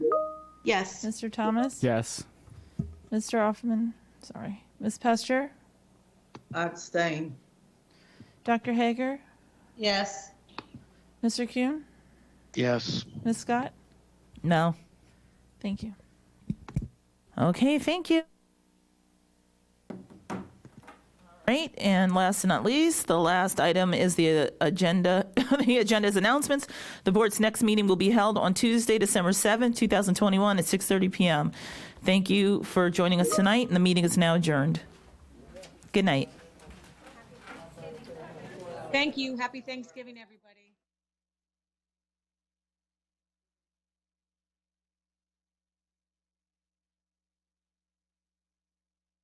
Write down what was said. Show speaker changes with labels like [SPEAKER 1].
[SPEAKER 1] Yes.
[SPEAKER 2] Mr. Thomas?
[SPEAKER 3] Yes.
[SPEAKER 2] Mr. Offman? Sorry. Ms. Pester?
[SPEAKER 4] abstain.
[SPEAKER 2] Dr. Hager?
[SPEAKER 1] Yes.
[SPEAKER 2] Mr. Kuhn?
[SPEAKER 5] Yes.
[SPEAKER 2] Ms. Scott?
[SPEAKER 6] No.
[SPEAKER 2] Thank you.
[SPEAKER 6] Okay, thank you. Right, and last but not least, the last item is the uh, agenda, the agenda's announcements. The board's next meeting will be held on Tuesday, December seventh, two 2021, at 6:30 PM. Thank you for joining us tonight, and the meeting is now adjourned. Good night.
[SPEAKER 7] Thank you. Happy Thanksgiving, everybody.